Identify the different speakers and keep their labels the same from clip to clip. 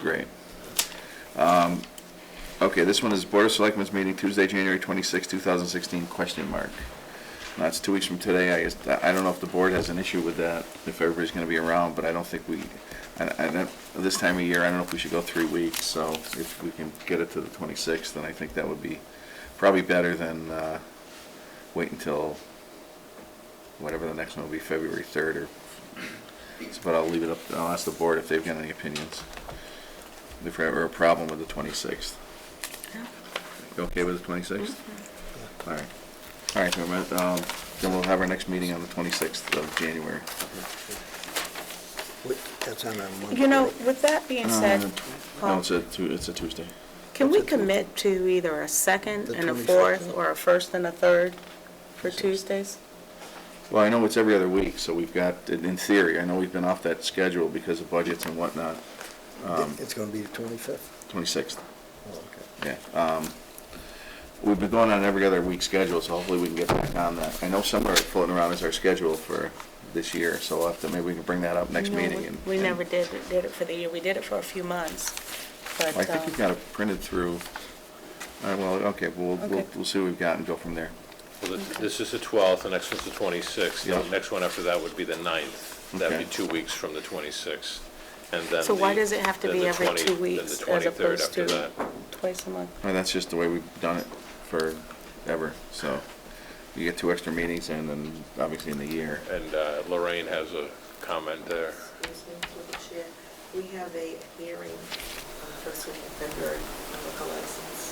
Speaker 1: great. Um, Okay, this one is Board of Selectmen's meeting Tuesday, January 26, 2016, question mark. Now, it's two weeks from today, I guess, I I don't know if the board has an issue with that, if everybody's going to be around, but I don't think we, I- I don't- this time of year, I don't know if we should go three weeks, so if we can get it to the 26th, then I think that would be probably better than uh, wait until whatever the next one will be, February 3rd or but I'll leave it up, I'll ask the board if they've got any opinions. If there ever a problem with the 26th. You okay with the 26th?
Speaker 2: Mm-hmm.
Speaker 1: All right. All right, never mind. Um, then we'll have our next meeting on the 26th of January.
Speaker 3: Wait, That's on a Monday.
Speaker 2: You know, with that being
Speaker 1: Uh,
Speaker 2: said,
Speaker 1: No,
Speaker 2: Paul,
Speaker 1: it's a, Tu- it's a Tuesday.
Speaker 2: can we commit to either a second
Speaker 3: The
Speaker 2: and a
Speaker 3: 22nd?
Speaker 2: fourth, or a first and a third for Tuesdays?
Speaker 1: Well, I know it's every other week, so we've got, in in theory, I know we've been off that schedule because of budgets and whatnot,
Speaker 3: It- Um. It's going to be the 25th.
Speaker 1: 26th.
Speaker 3: Oh, okay.
Speaker 1: Yeah, um, we've been going on every other week schedule, so hopefully we can get back on that. I know somewhere floating around is our schedule for this year, so we'll have to, maybe we can bring that up next
Speaker 2: No, we-
Speaker 1: meeting. and-
Speaker 2: We
Speaker 1: and-
Speaker 2: never did, did it for the year, we did it for a few months, but,
Speaker 1: I think you've
Speaker 2: um,
Speaker 1: got it printed through, all right, well, okay, we'll, we'll,
Speaker 2: Okay.
Speaker 1: we'll see what we've got and go from there.
Speaker 4: Well, th- this is the 12th, the next one's the 26th,
Speaker 1: Yeah.
Speaker 4: the next one after that would be the 9th. That'd
Speaker 1: Okay.
Speaker 4: be two weeks from the 26th, and then
Speaker 2: So why
Speaker 4: the-
Speaker 2: does it have to
Speaker 4: then
Speaker 2: be
Speaker 4: the
Speaker 2: every
Speaker 4: 20
Speaker 2: two
Speaker 4: then the
Speaker 2: weeks as
Speaker 4: 23rd
Speaker 2: opposed
Speaker 4: after
Speaker 2: to
Speaker 4: that.
Speaker 2: twice a month?
Speaker 1: Well, Uh, that's just the way we've done it forever, so you get two extra meetings and then obviously in the year.
Speaker 4: And uh, Lorraine has a comment there.
Speaker 5: Excuse me, through the chair. We have a hearing on the first week of February on liquor license.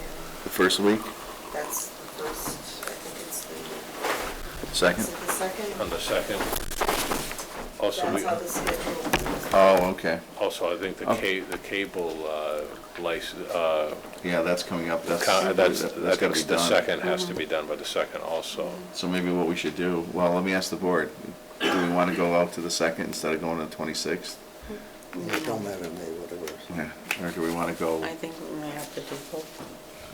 Speaker 5: And
Speaker 1: The first week,
Speaker 5: that's the first, I think it's the,
Speaker 1: second?
Speaker 5: is it the second?
Speaker 4: On the second, also, we,
Speaker 5: That's how the schedule.
Speaker 1: Oh, okay,
Speaker 4: also, I think the
Speaker 1: Okay.
Speaker 4: ca, the cable uh, license, uh,
Speaker 1: yeah, that's coming up, that's,
Speaker 4: con- that's,
Speaker 1: that's gotta be
Speaker 4: that's- the
Speaker 1: done. Mm-hmm.
Speaker 4: second has
Speaker 2: Mm-hmm.
Speaker 4: to be done by the second also.
Speaker 1: So maybe what we should do, well, let me ask the board, do we want to go out to the second instead of going to the twenty-sixth?
Speaker 3: It don't matter to me, whatever.
Speaker 1: Yeah, or do we want to go,
Speaker 2: I think we may have to do both.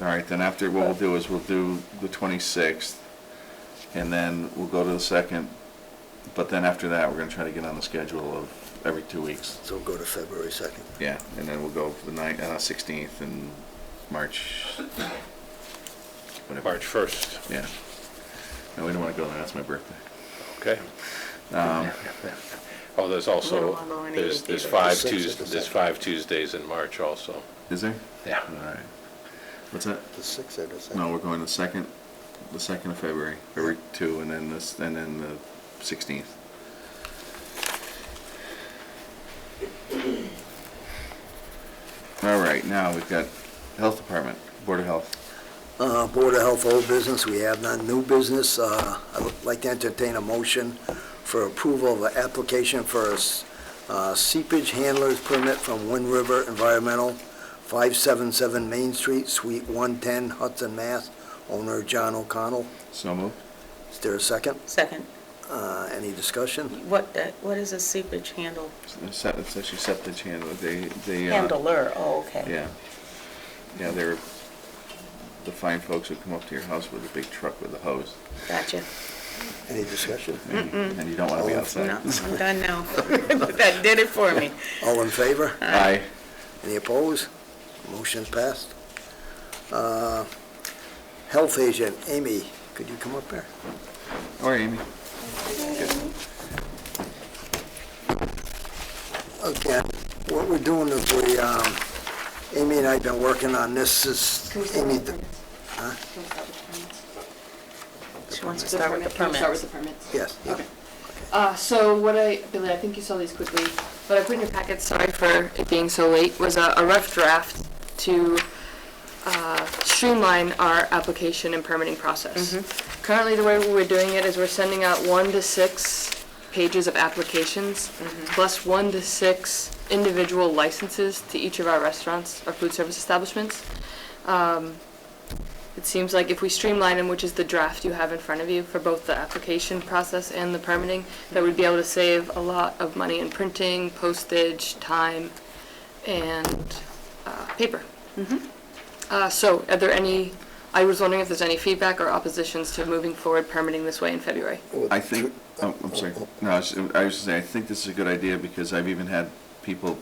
Speaker 1: all right, then after, what we'll do is we'll do the twenty-sixth, and then we'll go to the second, but then after that, we're gonna try to get on the schedule of every two weeks.
Speaker 3: So go to February 2nd.
Speaker 1: Yeah, and then we'll go the ninth, uh, sixteenth and March, whatever,
Speaker 4: March 1st,
Speaker 1: yeah. No, we don't want to go there, that's my birthday.
Speaker 4: okay?
Speaker 1: Um,
Speaker 4: Oh, there's also,
Speaker 2: wanna go on
Speaker 4: there's,
Speaker 2: either
Speaker 4: there's
Speaker 2: either.
Speaker 4: five
Speaker 3: The sixth or
Speaker 4: Tues,
Speaker 3: the
Speaker 4: there's
Speaker 3: second.
Speaker 4: five Tuesdays in March also.
Speaker 1: is there?
Speaker 4: Yeah.
Speaker 1: All right. What's that?
Speaker 3: The 6th or the 2nd?
Speaker 1: No, we're going the second, the second of February, February two, and then this, and then the sixteenth. All right, now we've got Health Department, Board of Health.
Speaker 3: Uh, Board of Health, old business, we have none, new business. Uh, I would like to entertain a motion for approval of an application for a s- uh, seepage handler's permit from Wind River Environmental, 577 Main Street, Suite 110, Hudson, Mass. Owner John O'Connell.
Speaker 1: So moved.
Speaker 3: Is there a second?
Speaker 2: Second,
Speaker 3: Uh, Any discussion?
Speaker 2: what, that- what is a seepage handle,
Speaker 1: It's se- it's actually septic handler, they, they. uh,
Speaker 2: handler, oh, okay.
Speaker 1: Yeah. Yeah, they're the fine folks who come up to your house with a big truck with a hose,
Speaker 2: Gotcha.
Speaker 3: Any discussion?
Speaker 1: and and you don't want to be outside.
Speaker 2: No, I'm done now. That did it for me.
Speaker 3: All in favor?
Speaker 1: Aye.
Speaker 3: Any opposed? Motion's passed. Uh, Health agent, Amy, could you come up here?
Speaker 1: All right, Amy.
Speaker 3: Okay, what we're doing is we, um, Amy and I have been working on this, this,
Speaker 6: Can we start
Speaker 3: Amy,
Speaker 6: with the permits? Can we
Speaker 2: She wants
Speaker 6: start with the permits?
Speaker 2: to start with the
Speaker 6: Can we start with
Speaker 2: permits.
Speaker 6: the permits?
Speaker 3: yes.
Speaker 6: Okay. Uh, so what I, Billy, I think you saw these quickly, but I put in your packet, sorry for it being so late, was a, a rough draft to, uh, streamline our application and permitting process. Currently, the way we're doing it is we're sending out one to six pages of applications, plus one to six individual licenses to each of our restaurants, our food service establishments. It seems like if we streamline them, which is the draft you have in front of you for both the application process and the permitting, that we'd be able to save a lot of money in printing, postage, time, and uh, paper. Uh, So are there any, I was wondering if there's any feedback or oppositions to moving forward permitting this way in February?
Speaker 1: I think, oh, I'm sorry, no, I was, I was just saying, I think this is a good idea, because I've even had people